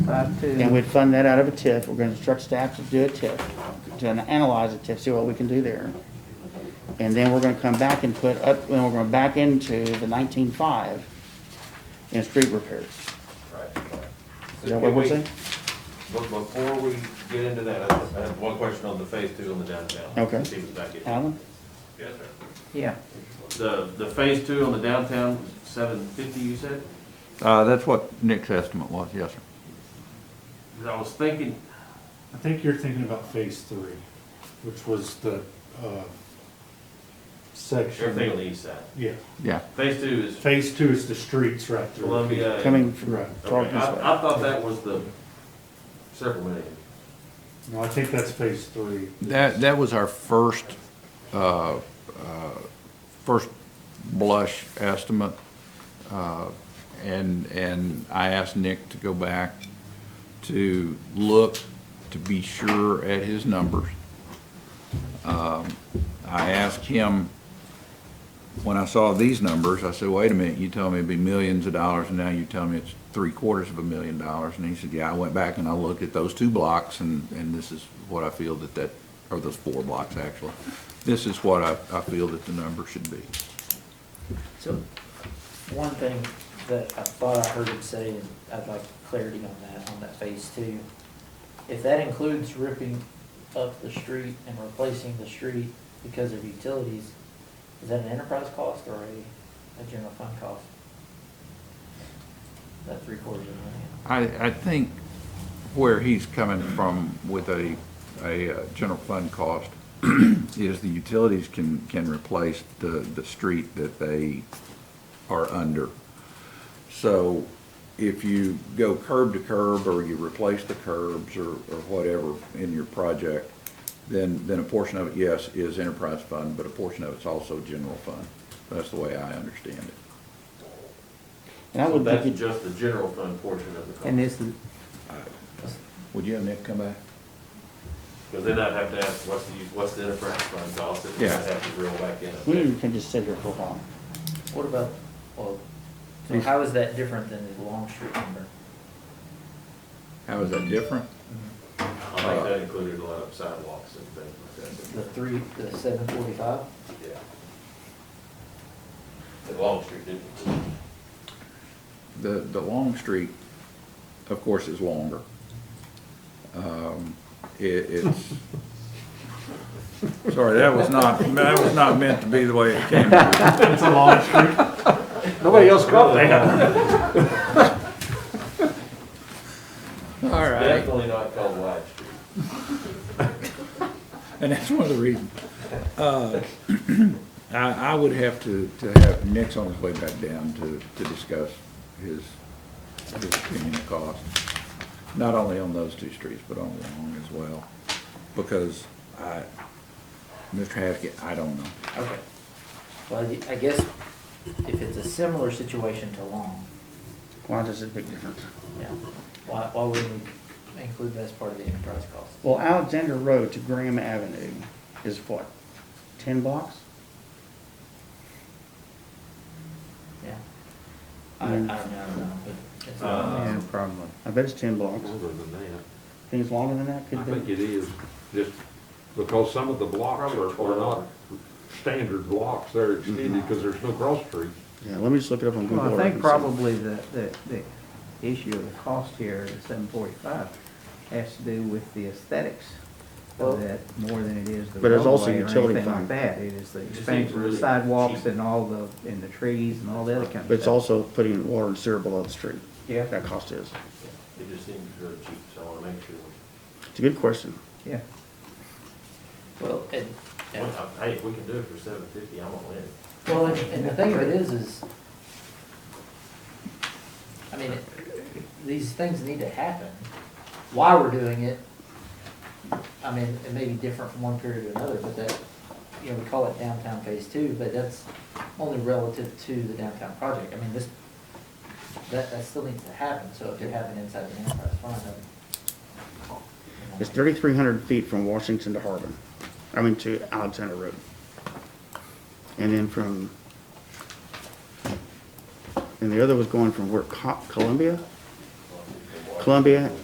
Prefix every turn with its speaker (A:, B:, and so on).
A: five two.
B: And we'd fund that out of a TIF. We're gonna instruct staff to do a TIF, to analyze a TIF, see what we can do there. And then we're gonna come back and put up, then we're gonna back into the nineteen-five in street repairs. Is that what we're saying?
C: But before we get into that, I I have one question on the phase two on the downtown.
B: Okay.
C: Let's see what's back in.
B: Alan?
C: Yes, sir.
A: Yeah,
C: The, the phase two on the downtown, seven fifty, you said?
D: Uh, that's what Nick's estimate was, yes, sir.
C: 'Cause I was thinking,
E: I think you're thinking about phase three, which was the, uh,
C: everything on
E: section.
C: the east side.
E: Yeah,
D: Yeah.
C: Phase two is
E: phase two is the streets right through.
C: Columbia. and-
B: Coming from
E: Right.
C: Okay,
B: Tarleton's way.
C: I, I thought that was the several million.
E: No, I think that's phase three.
D: That, that was our first, uh, uh, first blush estimate. Uh, And, and I asked Nick to go back to look, to be sure at his numbers. Um, I asked him, when I saw these numbers, I said, wait a minute, you told me it'd be millions of dollars, and now you tell me it's three quarters of a million dollars. And he said, yeah, I went back and I looked at those two blocks, and, and this is what I feel that that, or those four blocks, actually. This is what I, I feel that the number should be.
F: So, one thing that I thought I heard him say, and I'd like clarity on that, on that phase two. If that includes ripping up the street and replacing the street because of utilities, is that an enterprise cost or a, a general fund cost? That three quarters of a million?
D: I, I think where he's coming from with a, a uh, general fund cost is the utilities can, can replace the, the street that they are under. So if you go curb to curb or you replace the curbs or, or whatever in your project, then, then a portion of it, yes, is enterprise fund, but a portion of it's also general fund. That's the way I understand it.
B: And I
C: So
B: would think,
C: that's
B: it-
C: just the general fund portion of the cost.
A: and is, the-
D: Would you have Nick come back?
C: Because then I'd have to ask, what's the, what's the enterprise fund cost? And then I'd
D: Yeah.
C: have to reel back in.
B: we can just sit here for a while.
F: What about, well, so how is that different than the Long Street number?
D: How is that different?
C: I
G: Uh,
C: think that included a lot of sidewalks and things
F: The three, the seven forty-five?
C: like that, yeah. The Long Street didn't include.
D: The, the long street, of course, is longer. Um, It, it's, sorry, that was not, that was not meant to be the way it came.
E: It's a long street. Nobody else
C: Oh,
E: got that.
D: All right,
C: Definitely not called Wide Street.
D: and that's one of the reasons. Uh, I, I would have to, to have Nick's on his way back down to, to discuss his, his opinion of cost. Not only on those two streets, but on Long as well, because I, Mr. Haskett, I don't know.
F: Okay. Well, I- I guess if it's a similar situation to Long,
B: Why does it make a difference?
F: yeah, why, why wouldn't we include that as part of the enterprise cost?
B: Well, Alexander Road to Graham Avenue is what, ten blocks?
F: Yeah. I, I don't know, I don't know, but it's,
C: Uh,
F: I
A: Um,
C: Yeah,
B: probably. I bet it's ten blocks.
G: Longer than that.
B: Think it's longer than that?
G: I
B: Could
G: think
B: be.
G: it is, just because some of the blocks are, are not standard blocks, they're
D: Mm-hmm.
G: extended because there's no cross streets.
B: Yeah, let me just look it up on Google.
A: well,
B: Earth and
A: I think
B: see.
A: probably the, the, the issue of the cost here, the seven forty-five, has to do with the aesthetics
F: Well-
A: of that more than it is the
B: But it's also
A: roadway or
B: utility
A: anything
B: fund.
A: like that. It is the
C: just seems
A: expansion of
C: really
A: the sidewalks
C: cheap.
A: and all the, and the trees and all the other kind of stuff.
B: But it's also putting water and sewer below the street.
A: Yeah.
B: That cost is.
C: It just seems really cheap, so I want to make sure.
B: It's a good question.
A: Yeah.
F: well, and, and,
C: Well, I- Hey, if we can do it for seven fifty, I'm all in.
F: well, and and the thing of it is, is, I mean, it- these things need to happen. Why we're doing it, I mean, it may be different from one period to another, but that, you know, we call it downtown phase two, but that's only relative to the downtown project. I mean, this, that, that still needs to happen, so if they're happening inside the enterprise fund, then.
B: It's thirty-three hundred feet from Washington to Harbin, I mean to Alexander Road. And then from, and the other was going from where, Co- Columbia? Columbia